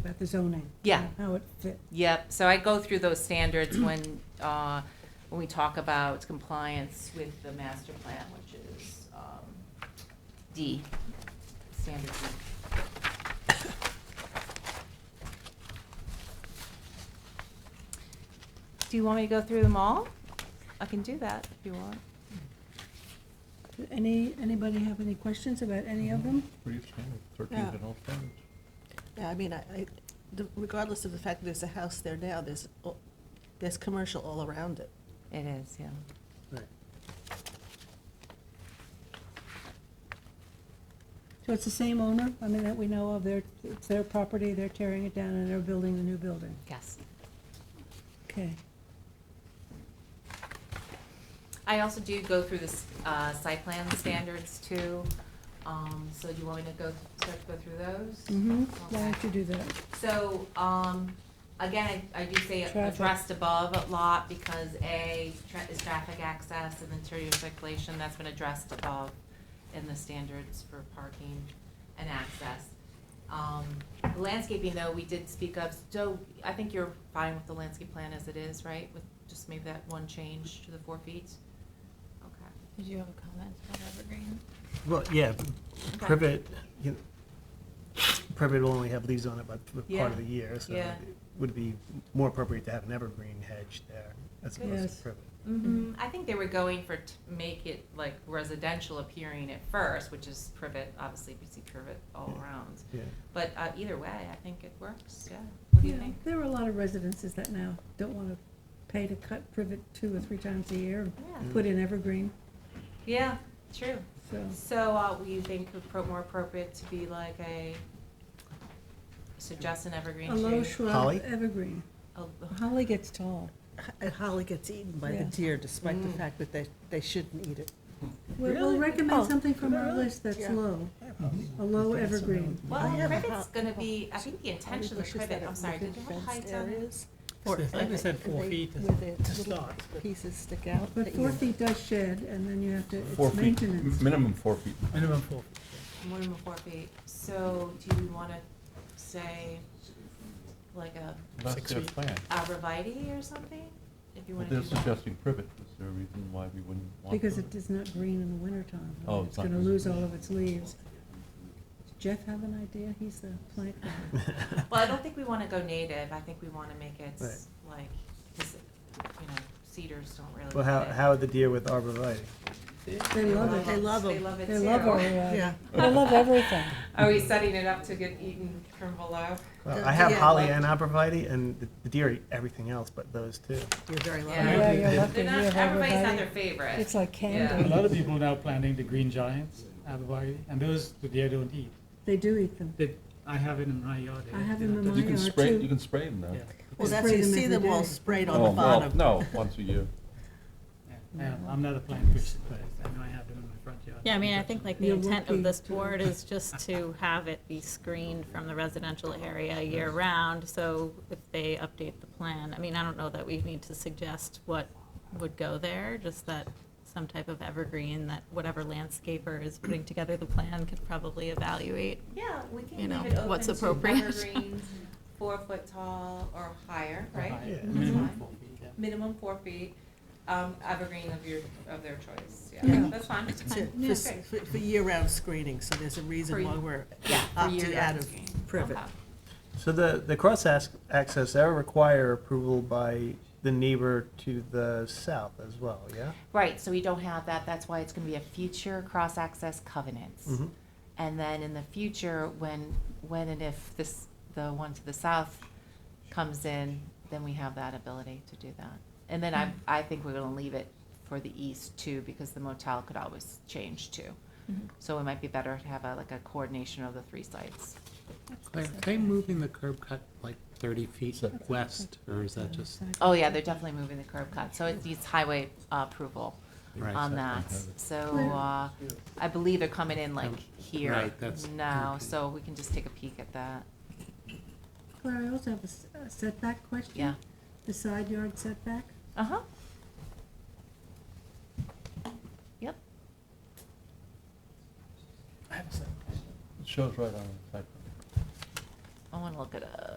about the zoning. Yeah. How it fit. Yep, so I go through those standards when, uh, when we talk about compliance with the master plan, which is um, D, standard D. Do you want me to go through them all? I can do that if you want. Any, anybody have any questions about any of them? Pretty standard, thirteen Yeah. and all standards. Yeah, I mean, I, I- the- regardless of the fact that there's a house there now, there's, o- there's commercial all around it. It is, yeah. So it's the same owner, I mean, that we know of, they're, it's their property, they're tearing it down and they're building the new building. Yes. Okay. I also do go through the uh, site plan standards too, Um, so do you want me to go, start to go through those? Mm-hmm. Why Okay. don't you do that? So, um, again, I, I do say Traffic. addressed above a lot because A tra- is traffic access and interior circulation, that's been addressed above in the standards for parking and access. Um, landscaping though, we did speak up, so I think you're fine with the landscape plan as it is, right? With just maybe that one change to the four feet? Okay. Did you have a comment about Evergreen? Well, yeah, Okay. privet, you know, privet will only have leaves on it but for part of Yeah, the year, so yeah. it would be more appropriate to have an evergreen hedge there as opposed Yes. to privet. Mm-hmm. I think they were going for to make it like residential appearing at first, which is privet, obviously we see privet all Yeah. around. Yeah, But uh, either way, I think it works. Yeah. What do you Yeah, think? There are a lot of residences that now don't want to pay to cut privet two or three times a year and Yeah. Mm. put in evergreen, Yeah. True. so. So, uh, what do you think would pro- more appropriate to be like a suggest an evergreen A low tree? shrub, Holly? evergreen. A- Holly gets tall. H- And holly gets eaten by the Yeah. deer despite the Mm. fact that they, they shouldn't eat it. We'll- We'll Really? recommend Oh, something from our really? list that's Yeah. low, a low evergreen. I well, have a privet's ho- going to ho- be. I think the intention of the privet. I'm sorry. Did you have heights on it? Or I think they said four feet is- to little start. pieces stick out. But that four you- feet does shed, and then you have to, Four it's feet, m- maintenance. minimum four feet. Minimum four. More than four feet. So, do you want to say like a That's Six their feet. plan. arborvitae or something? If you But want to they're do that. suggesting privet. Is there a reason why we wouldn't want? Because privet? it is not green in the wintertime. Oh, It's it's not gonna green. lose all of its leaves. Does Jeff have an idea? He's the plant guy. Well, I don't think we want to go native. I think we want to make it Right. like, 'cause, you know, cedars don't really. Well, how, fit. how would the deer with arborvitae? They love it. They love They 'em. love it They love our, too. uh, Yeah. they love everything. Are we setting it up to get eaten from below? Well, The I have deer holly love- and arborvitae, and the- the deer eat everything else but those two. You're very Yeah. lucky. Yeah, you're lucky They're you not, have everybody's not their everybody. favorite. It's like A candy. lot of people now planting the green giants, abibari, and those the deer don't eat. They do eat them. They, I have it in my yard. I have them in You mine can are spray, too. you can spray them though. Yeah. Well, They that's, spray you them see every them all day. sprayed Oh, on the well, bottom. No, once a year. Yeah, I'm not a plant person, but I know I have them in my front yard. Yeah, I mean, I think like the You're intent of this looking to- board is just to have it be screened from the residential area year-round, so if they update the plan, I mean, I don't know that we need to suggest what would go there, just that some type of evergreen that whatever landscaper is putting together the plan could probably evaluate. Yeah, we can You know, leave it open what's to appropriate. evergreens, four foot tall or higher, right? High- Yeah. Minimum That's fine. four feet, yeah. Minimum four feet, um, evergreen of your, of their choice, yeah, Yeah. that's fine. To- for Yeah. s- For, for year-round screening, so there's a For reason why you- we're Yeah, for opting year out of evergreen. privet. Okay. So the, the cross ac- access, that would require approval by the neighbor to the south as well, yeah? Right, so we don't have that, that's why it's gonna be a future cross-access covenants. Mhm. And then in the future, when, when and if this, the one to the south comes in, then we have that ability to do that. And then I, I think we're gonna leave it for the east too, because the motel could always change too. So it might be better to have a, like a coordination of the three sites. Claire, are they moving the curb cut like thirty feet west, or is that just? Oh, yeah, they're definitely moving the curb cut, so it needs highway uh, approval Right. on that. So, uh, I believe they're coming in like here Right, that's- now, okay. so we can just take a peek at that, Claire, I also have a s- a setback question. yeah. The side yard setback. Uh-huh. Yep, It shows right on the side. I wanna look it up.